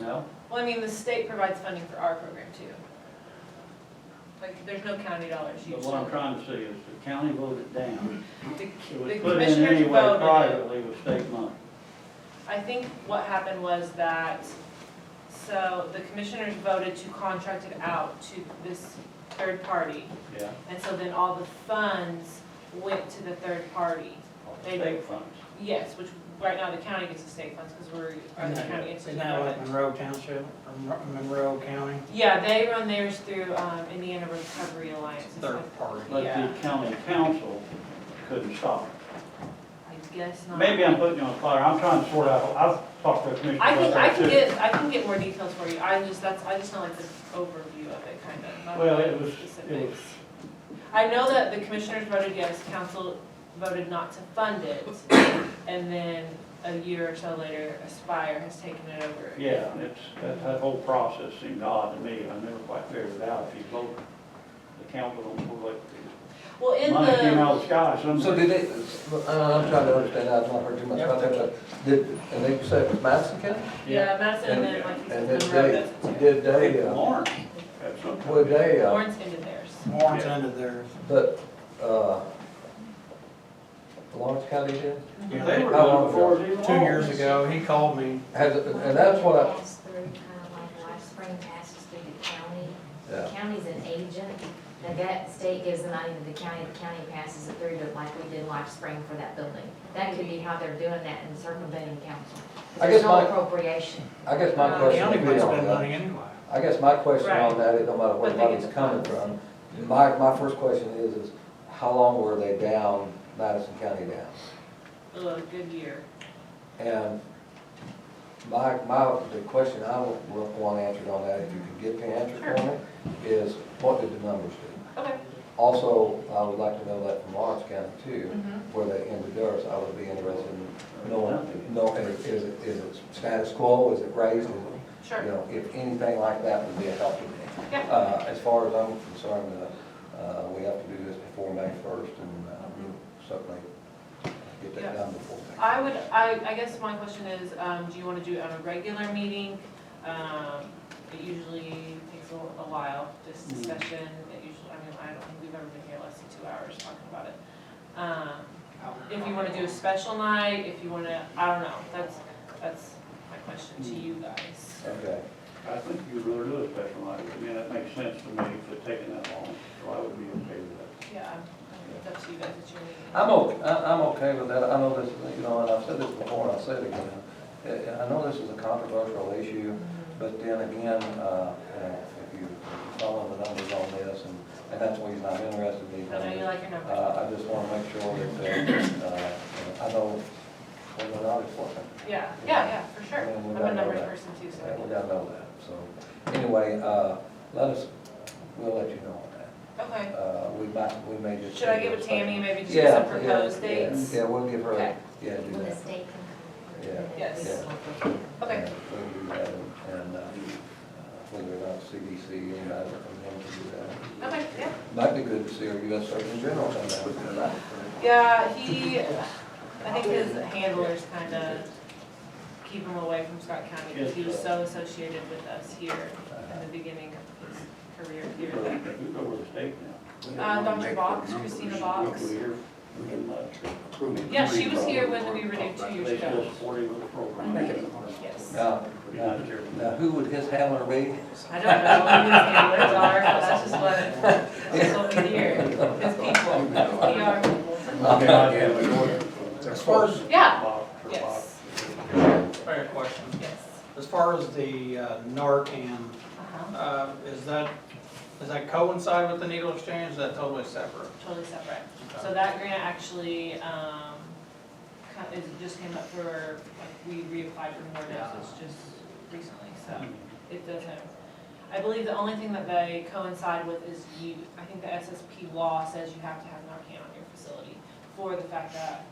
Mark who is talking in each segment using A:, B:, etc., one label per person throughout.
A: No?
B: Well, I mean, the state provides funding for our program too. Like, there's no county dollars
A: But
B: used.
A: what I'm trying to say is the county voted down.
B: The
A: It was
B: the
A: put in
B: commissioners
A: anyway
B: voted it.
A: privately with state money.
B: I think what happened was that, so the commissioners voted to contract it out to this third party.
A: Yeah,
B: And so then all the funds went to the third party.
A: off the
B: They-
A: state funds.
B: Yes, which right now the county gets the state funds because we're, or the county gets the
C: Isn't that what Monroe Township, or Mon- Monroe County?
B: Yeah, they run theirs through um, Indiana Recovery Alliance. It's
C: Third
B: like-
C: party.
A: But
B: Yeah.
A: the county council couldn't stop it.
B: I guess not.
A: Maybe I'm putting you on the fire, I'm trying to sort out, I've talked to the commissioner
B: I
A: about
B: can, I
A: that
B: can
A: too.
B: get, I can get more details for you, I just, that's, I just know like the overview of it, kind of, not
A: Well,
B: really
A: it was, it was,
B: specifics. I know that the commissioners voted yes, council voted not to fund it, and then a year or so later, Aspire has taken it over.
A: yeah, it's, that, that whole process seemed odd to me, I never quite figured it out, if you vote, the council don't vote,
B: Well,
A: like,
B: in
A: money came
B: the,
A: out of the sky
D: So
A: somewhere.
D: did they, uh, I'm trying to understand, I've not heard too much about that, but did, and they said it was Madison County?
B: yeah, Madison and then like you said,
D: And did
B: Monroe does it
D: they,
B: too.
D: did they, uh,
A: Lawrence, at some point.
D: would they, uh,
B: Lawrence ended theirs.
C: Warren's
A: Yeah.
C: under theirs.
D: but, uh, Lawrence County did?
A: They were doing it
D: How long
A: before
D: ago?
A: it was even
C: Two years
A: Lawrence.
C: ago, he called me,
D: Has it, and that's what I,
E: Pass through, kind of uh, like Life Spring passes through the county. The
D: yeah,
E: county's an agent, the gut state gives the money to the county, the county passes it through to like we did Life Spring for that building. That could be how they're doing that and circumventing council.
D: I guess
E: There's no
D: my-
E: appropriation.
D: I guess my
B: Uh,
C: the
D: question
C: county
D: would be
C: would
D: on
C: spend money
D: that.
C: anyway.
D: I guess my question
B: Right.
D: on that is, no matter where
B: But
D: the
B: they
D: money's
B: get the
D: coming
B: funds.
D: from, my, my first question is, is how long were they down, Madison County down?
B: Ugh, good year.
D: And my, my, the question I wa- wa- want answered on that, if you could get the answer for me, is what did the numbers do?
B: Okay.
D: Also, I would like to know that from Lawrence County too,
B: Mhm.
D: where they ended theirs, I would be interested in knowing,
A: Nothing.
D: know, is is it, is it status quo, is it raised? Is it-
B: Sure.
D: You know, if anything like that would be a help to me.
B: Yeah.
D: Uh, as far as I'm concerned, uh, uh, we have to do this before May first and, uh, certainly get
B: Yeah.
D: that done before. May
B: I would, I, I guess my question is, um, do you wanna do it on a regular meeting? Um, it usually takes a a while, this
A: Mm.
B: discussion, it usually, I mean, I don't think we've ever been here less than two hours talking about it. Um, if you wanna do a special night, if you wanna, I don't know, that's, that's my question to you
D: Mm.
B: guys.
D: Okay.
A: I think you really do a special night, I mean, that makes sense to me, if it's taking that long, so I would be okay with that.
B: Yeah, I'm- I'm- it's up to you guys, it's your meeting.
D: I'm okay, I'm okay with that, I know this, is, you know, and I've said this before, and I'll say it again. Uh, I know this is a controversial issue, but then again, uh, you know, if you follow the numbers on this, and, and that's the reason I'm interested in
B: I
D: these
B: know you
D: numbers.
B: like your numbers.
D: Oh. Uh, I just wanna make sure that, uh, uh, I know what the numbers were,
B: Yeah, yeah, yeah, for sure.
D: Yeah, we
B: I'm
D: gotta
B: a
D: know
B: numbers
D: that.
B: person too, so.
D: and we gotta know that, so. Anyway, uh, let us, we'll let you know on that.
B: Okay.
D: Uh, we might, we may just.
B: Should I give it to Tammy, maybe just
D: Yeah,
B: some
D: yeah,
B: proposed
D: yeah,
B: dates?
D: Yeah, we'll give her,
B: Okay.
D: a- yeah, do
E: When the
D: that.
E: state can.
D: Yeah.
B: Yes.
E: Yeah.
B: Okay,
D: And, uh, And uh, whether or not CDC, and I don't know to do that.
B: okay, yeah.
D: Might be good to see our U.S. Surgeon General come down.
B: Yeah, he, I think his handlers kind of keep him away from Scott County because he was so associated with us here in the beginning of his career
A: You
B: here.
A: go
B: that-
A: you go over the state now.
B: Uh, Dr. Box, Christina Box.
A: We're here, we can, uh,
B: Yeah, she was here when we renewed two years
A: They still
B: ago.
A: supporting the program.
B: Yes.
D: Now,
A: Not
D: Uh, now,
A: sure.
D: now, who would his handler be?
B: I don't know who his handlers are, but that's just what, that's what we hear. His people, his PR people.
A: Okay, I do.
C: As far as,
B: Yeah,
A: Box, or
B: Yes.
A: Box.
C: fair question,
B: yes.
C: as far as the uh, Narcan,
B: Uh-huh,
C: uh, is that, does that coincide with the needle exchange, is that totally separate?
B: totally separate. So that grant actually, um, co- is, just came up for, like, we reapplied for more doses just recently, so it doesn't. I believe the only thing that they coincide with is you, I think the SSP law says you have to have Narcan on your facility for the fact that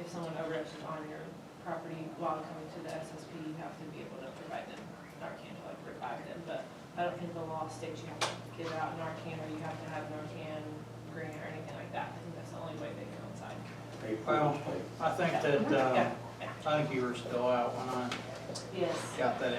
B: if someone overdoses on your property while coming to the SSP, you have to be able to provide them Narcan to like revive them, but I don't think the law states you have to give out Narcan or you have to have Narcan grant or anything like that. I think that's the only way they coincide.
C: Well, I think that, uh,
B: Yeah.
C: I think you were still out when I
B: Yes.
C: got that